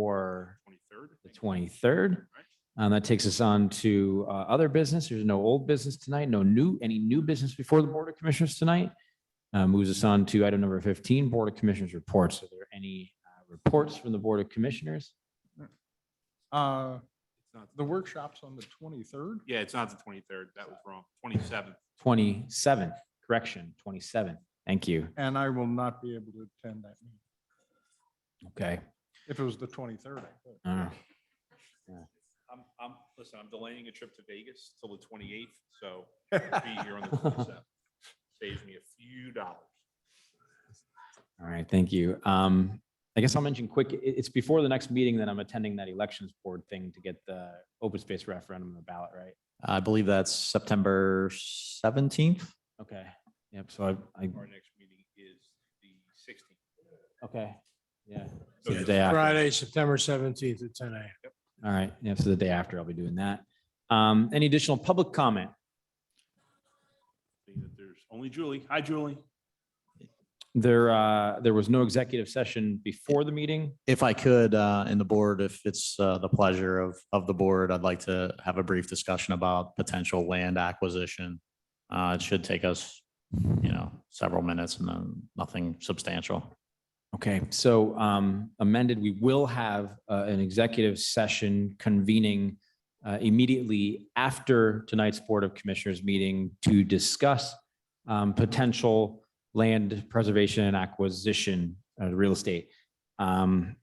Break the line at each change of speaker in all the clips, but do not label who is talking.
for
Twenty-third.
the twenty-third. Um, that takes us on to, uh, other business. There's no old business tonight, no new, any new business before the Board of Commissioners tonight. Uh, moves us on to item number fifteen, Board of Commissioners reports. Are there any uh, reports from the Board of Commissioners?
Uh,
It's not-
the workshop's on the twenty-third.
Yeah, it's not the twenty-third. That was wrong. Twenty-seventh.
Twenty-seven, correction, twenty-seven. Thank you.
And I will not be able to attend that meeting.
Okay.
If it was the twenty-third, I could.
Uh,
I'm, I'm, listen, I'm delaying a trip to Vegas till the twenty-eighth, so I'll be here on the twenty-seventh. Saves me a few dollars.
All right, thank you. Um, I guess I'll mention quick, i- it's before the next meeting that I'm attending that elections board thing to get the open space referendum on the ballot, right?
I believe that's September seventeenth.
Okay, yep, so I, I,
Our next meeting is the sixteenth.
okay, yeah.
So
So the
just
day after.
Friday, September seventeenth at ten AM.
All right, yeah, so the day after I'll be doing that. Um, any additional public comment?
Seeing that there's only Julie. Hi, Julie.
There, uh, there was no executive session before the meeting.
If I could, uh, and the board, if it's, uh, the pleasure of, of the board, I'd like to have a brief discussion about potential land acquisition. Uh, it should take us, you know, several minutes and then nothing substantial.
Okay, so um, amended, we will have uh, an executive session convening uh, immediately after tonight's Board of Commissioners meeting to discuss um, potential land preservation and acquisition of real estate. Um,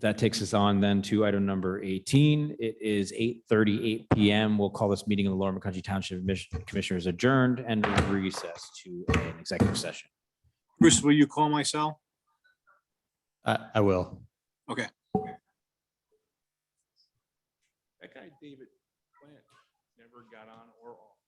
That takes us on then to item number 18. It is 8:38 PM. We'll call this meeting in the Lower McCounty Township Admis- Commissioners adjourned and recess to an executive session.
Bruce, will you call my cell?
I, I will.
That guy, David Plant, never got on or off.